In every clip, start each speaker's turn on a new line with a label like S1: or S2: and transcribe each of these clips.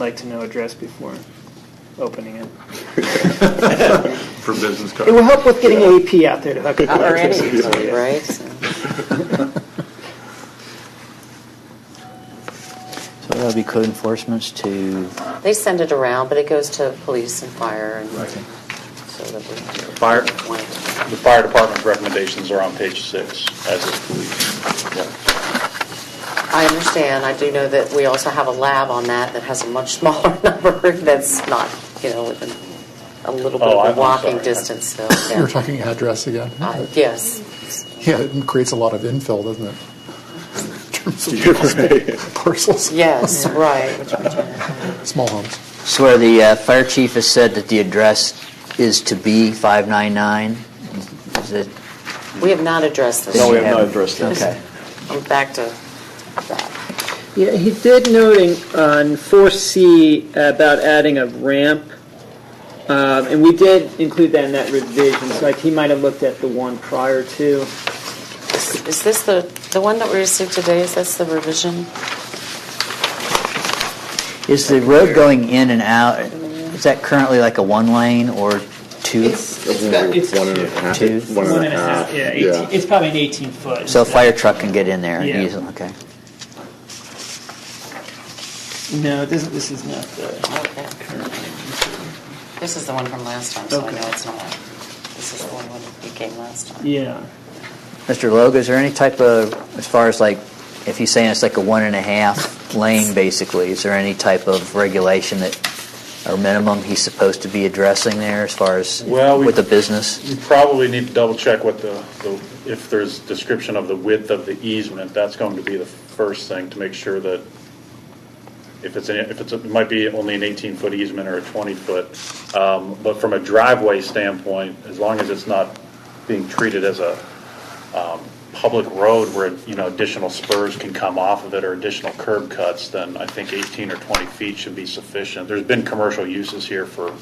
S1: like to know address before opening it.
S2: for business
S1: It will
S2: cards.
S1: help with getting AP out there to hook up.
S3: Or any
S1: electricity, so,
S3: utility,
S1: yeah.
S3: right? So-
S4: So that'll be code enforcement's to,
S3: They send it around, but it goes to police and fire and
S2: Right.
S3: so that we.
S5: Fire.
S3: One.
S5: The fire department's recommendations are on page six, as is police. Yeah.
S3: I understand, I do know that we also have a lab on that that has a much smaller number that's not, you know, within a little bit
S5: Oh, I-
S3: of
S5: I'm
S3: a walking
S5: sorry.
S3: distance, so. yeah.
S6: You're talking address again.
S3: Uh, Yes.
S6: Yeah, it creates a lot of infill, doesn't it? In terms of parcels,
S3: Yes, right.
S6: small homes.
S4: so where the uh, fire chief has said that the address is to be 599? Is it?
S3: We have not addressed this
S4: No, we
S3: yet.
S4: have not addressed that. Okay.
S3: I'm back to that.
S1: Yeah, he did noting on 4C about adding a ramp, um, and we did include that in that revision, so like he might have looked at the one prior to.
S3: Is is this the, the one that we received today, is this the revision?
S4: Is the road going in and out, is that currently like a one lane or two?
S1: it's about- it's-
S7: One and a half.
S4: Two?
S7: One and a half.
S1: Yeah, 18 it's probably an 18 foot.
S4: So a fire truck can get in there
S1: Yeah.
S4: easily, okay.
S1: No, this, this is not the
S3: Okay.
S1: current.
S3: This is the one from last time, so I
S1: Okay.
S3: know it's not, this is the one when you came last time.
S1: Yeah.
S4: Mr. Logue, is there any type of, as far as like, if you're saying it's like a one and a half lane basically, is there any type of regulation that, or minimum he's supposed to be addressing there as far as
S5: Well, we- Mm-hmm.
S4: with the business?
S5: You probably need to double check what the, the- if there's description of the width of the easement, that's going to be the first thing to make sure that if it's, a- if it's, a- it might be only an 18-foot easement or a 20-foot. um, But from a driveway standpoint, as long as it's not being treated as a um, public road where, you know, additional spurs can come off of it or additional curb cuts, then I think 18 or 20 feet should be sufficient. There's been commercial uses here for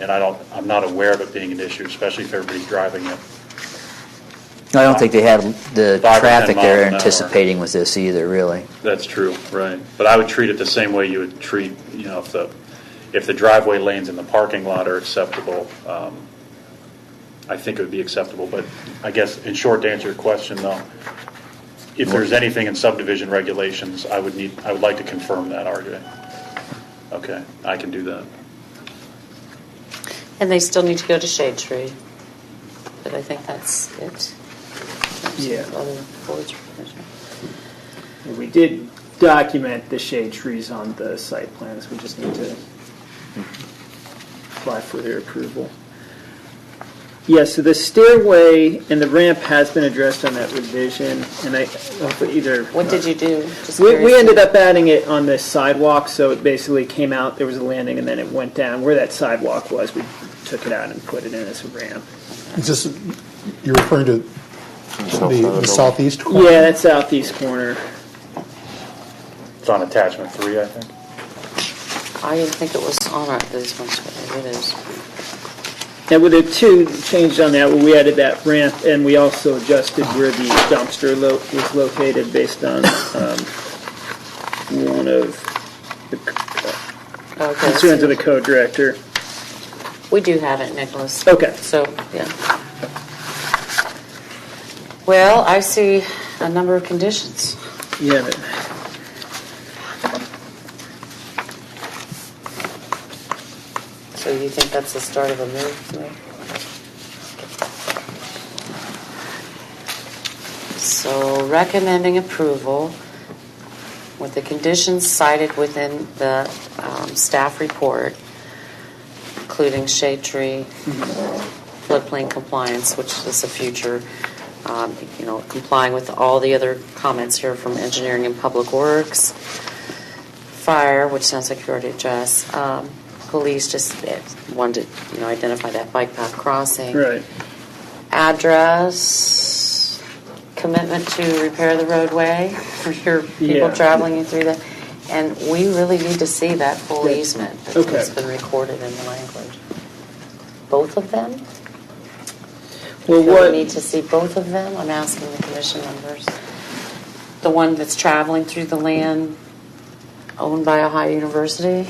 S5: and I don't, I'm not aware of it being an issue, especially if everybody's driving it.
S4: No, I don't think they had the
S5: Five or ten
S4: traffic
S5: miles
S4: they're
S5: an hour.
S4: anticipating with this either, really.
S5: That's true, right. But I would treat it the same way you would treat, you know, if the, if the driveway lanes in the parking lot are acceptable, um, I think it would be acceptable. But I guess, in short, to answer your question, though, if there's anything in subdivision regulations, I would need, I would like to confirm that, RJ. Okay, I can do that.
S3: And they still need to go to Shade Tree. But I think that's it.
S1: Yeah.
S3: On the board's provision.
S1: We did document the shade trees on the site plans, we just need to apply for their approval. Yeah, so the stairway and the ramp has been addressed on that revision, and I, hopefully either. uh,
S3: What did you do? Just
S1: We, we
S3: curious.
S1: ended up adding it on the sidewalk, so it basically came out, there was a landing, and then it went down. Where that sidewalk was, we took it out and put it in as a ramp.
S6: It's just, you're referring to the, the southeast corner?
S1: Yeah, that southeast corner.
S5: It's on attachment three, I think.
S3: I didn't think it was on our, those ones, but it is.
S1: And with the two changed on that, we added that ramp, and we also adjusted where the dumpster lo- was located based on um, one of the c- concerns of
S3: Okay.
S1: the code director.
S3: We do have it, Nicholas.
S1: Okay.
S3: So, yeah. Well, I see a number of conditions.
S1: Yeah, but
S3: So you think that's the start of a move? Lou? So recommending approval with the conditions cited within the um, staff report, including shade tree, floodplain compliance, which is a future, um, you know, complying with all the other comments here from engineering and public works fire, which sounds like you already addressed, um, police just eh, wanted to, you know, identify that bike path crossing.
S1: Right.
S3: Address, commitment to repair the roadway for your people
S1: Yeah.
S3: traveling you through that. And we really need to see that full easement that's
S1: Okay.
S3: been recorded in the language. Both of them?
S1: Well,
S3: Do we need
S1: what,
S3: to see both of them? I'm asking the commission members. The one that's traveling through the land owned by Ohio University.